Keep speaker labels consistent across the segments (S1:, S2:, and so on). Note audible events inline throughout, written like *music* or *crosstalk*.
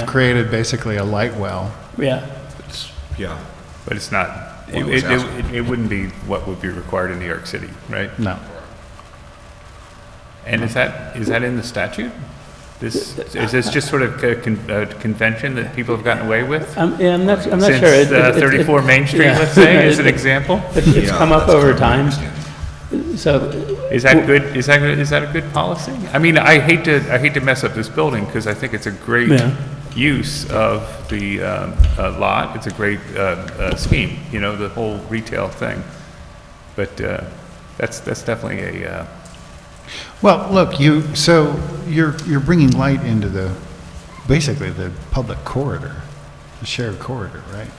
S1: You've created basically a light well.
S2: Yeah,
S3: It's- Yeah,
S4: But it's not,
S3: Well,
S4: it,
S3: it was
S4: it,
S3: asked.
S4: it- it wouldn't be what would be required in New York City, right?
S1: No.
S4: And is that, is that in the statute? This, is this just sort of a con- a convention that people have gotten away with?
S2: I'm, yeah, I'm not, I'm not sure. It-
S4: Since uh,
S2: it- it-
S4: 34 Main Street,
S2: yeah. *laughs*
S4: let's say, is an
S2: It-
S4: example?
S2: it- It's
S3: Yeah,
S2: come up
S3: that's
S2: over
S3: common, I
S2: time,
S3: understand.
S2: so,
S4: Is that good, is that, is that a good policy? I mean, I hate to, I hate to mess up this building, because I think it's a great
S2: Yeah.
S4: use of the um, uh, lot, it's a great uh, uh, scheme, you know, the whole retail thing. But uh, that's, that's definitely a, uh,
S1: Well, look, you, so you're, you're bringing light into the, basically the public corridor, the shared corridor, right?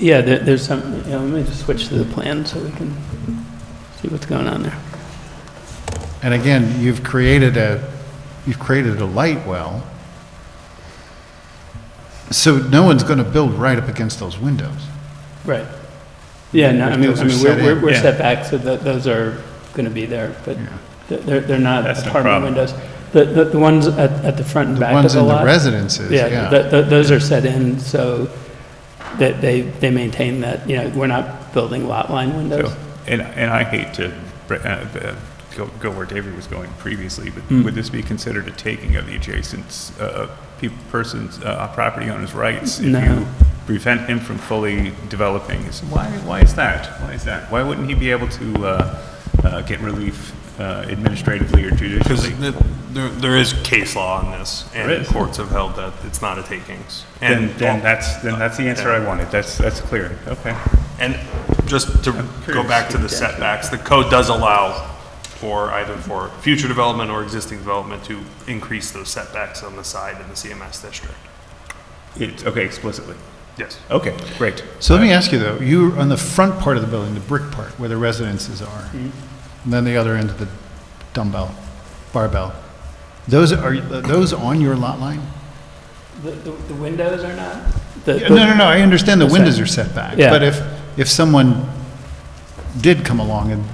S2: yeah, there, there's some, you know, let me just switch to the plan so we can see what's going on there.
S1: And again, you've created a, you've created a light well. So no one's going to build right up against those windows.
S2: Right. Yeah, no, I mean,
S1: Those
S2: I
S1: are
S2: mean,
S1: set
S2: we're,
S1: in.
S2: we're- we're
S4: Yeah.
S2: set back, so tho- those are gonna be there, but they're- they're, they're not
S4: That's no
S2: apartment
S4: problem.
S2: windows. The, the, the ones at, at the front and
S1: The
S2: back of
S1: ones
S2: the
S1: in the
S2: lot.
S1: residences,
S2: Yeah,
S1: yeah.
S2: th- th- those are set in, so that they, they maintain that, you know, we're not building lot line windows.
S4: So, and, and I hate to br- uh, uh, go, go where David was going previously, but would this be considered a taking of the adjacent, uh, peop- person's, uh, property owner's rights?
S2: No.
S4: If you prevent him from fully developing, his why, why is that? Why is that? Why wouldn't he be able to, uh, uh, get relief uh, administratively or
S5: Because
S4: judicially?
S5: there, there is case law on this,
S4: There
S5: and
S4: is.
S5: courts have held that it's not a takings.
S4: Then,
S5: And-
S4: then that's, then that's the answer I wanted. That's, that's clear. Okay.
S5: And just to go
S4: curious.
S5: back to the setbacks, the code does allow for either for future development or existing development to increase those setbacks on the side in the CMS district.
S4: It's, okay, explicitly.
S5: Yes.
S4: Okay, great.
S1: So let me ask you though, you, on the front part of the building, the brick part where the residences are, and then the other end of the dumbbell, barbell, those are, are those on your lot line?
S2: The, the, the windows are not?
S1: Yeah, No, no, no, I understand the windows are set back,
S2: Yeah.
S1: but if, if someone did come along and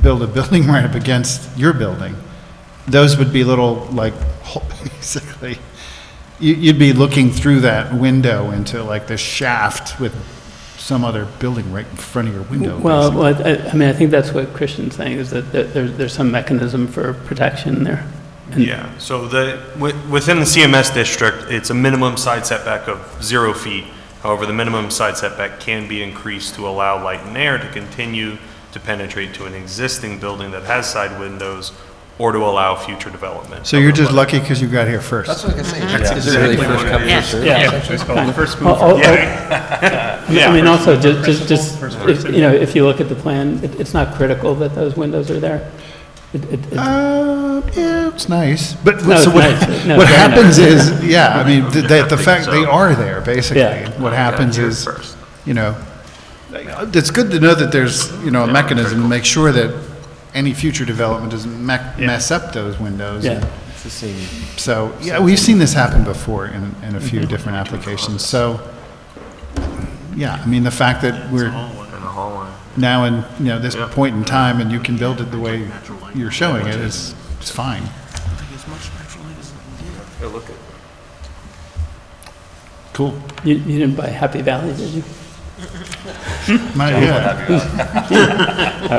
S1: build a *laughs* building right up against your building, those would be little, like, *laughs* hole- basically, you- you'd be looking through that window into like the shaft with some other building right in front of your window.
S2: Well,
S1: basically.
S2: well, I, I mean, I think that's what Christian's saying, is that there, there- there's some mechanism for protection there. And-
S5: Yeah, so the, wi- within the CMS district, it's a minimum side setback of zero feet. However, the minimum side setback can be increased to allow light and air to continue to penetrate to an existing building that has side windows or to allow future development.
S1: So you're just lucky because you got here first.
S6: That's what I was gonna say. Is it really first come, first served?
S4: Yeah, it's called the first
S2: Oh,
S4: mover.
S2: oh,
S5: Yeah.
S1: *laughs*
S2: oh, I mean, also, just, just, just,
S4: First
S2: if-
S4: person.
S2: you know, if you look at the plan, it, it's not critical that those windows are there. It, it, it-
S1: Uh, yeah, it's nice, but
S2: No,
S1: so
S2: it's
S1: what,
S2: nice. No,
S1: what
S2: very
S1: happens is, yeah, I mean, th- that the fact they
S5: so.
S1: are there, basically,
S2: Yeah.
S1: what happens
S5: here
S1: is,
S5: first.
S1: you know, it's good to know that there's, you know, a mechanism to make sure that any future development doesn't mec- mess up those windows.
S2: yeah,
S6: It's the same.
S1: So, yeah, we've seen this happen before in, in a few different applications, so, yeah, I mean, the fact that we're now in, you know, this point in time, and you can build it the way you're showing it, is, is fine. Cool.
S2: you, you didn't buy Happy Valley, did you?
S1: My, yeah,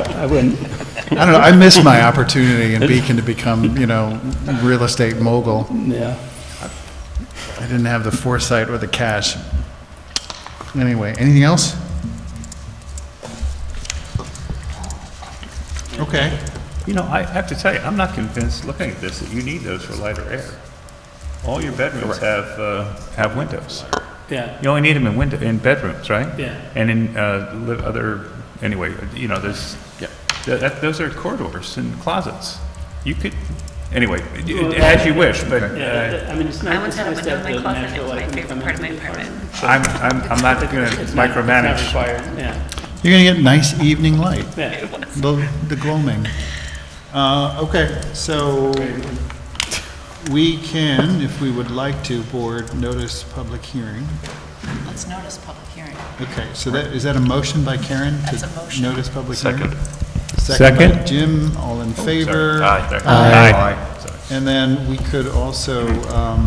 S2: I, I wouldn't.
S1: I don't know, I missed
S5: *laughs*
S1: my opportunity in Beacon to become, you know, real estate mogul.
S2: Yeah.
S1: I didn't have the foresight or the cash. Anyway, anything else? Okay.
S4: You know, I have to tell you, I'm not convinced, looking at this, that you need those for lighter air. All your bedrooms have, uh, have windows.
S2: Yeah.
S4: You only need them in window, in bedrooms, right?
S2: Yeah.
S4: And in, uh, li- other, anyway, you know, there's, Th- that, those are corridors and closets. You could, anyway, as you wish, but, uh,
S2: I mean, it's
S7: I
S2: nice,
S7: once
S2: it's
S7: had a
S2: nice to
S7: window
S2: have
S7: in my
S2: the
S7: closet, and it was my
S2: natural light when you
S7: favorite
S2: come
S7: part of my
S2: into the apartment.
S7: apartment.
S4: I'm, I'm, I'm not gonna
S2: It's not- It's
S4: micromanage.
S2: not required, yeah,
S1: You're gonna get nice evening light,
S2: yeah.
S1: the, the gloaming. Uh, okay, so we can, if we would like to, board notice public hearing.
S8: Let's notice public hearing.
S1: Okay, so that, is that a motion by Karen? to
S8: That's a motion.
S1: Notice public hearing?
S5: Second. Oh,
S1: Second by
S4: Second.
S1: Jim, all in favor?
S5: Aye.
S4: Aye. Sorry.
S1: And then we could also, um,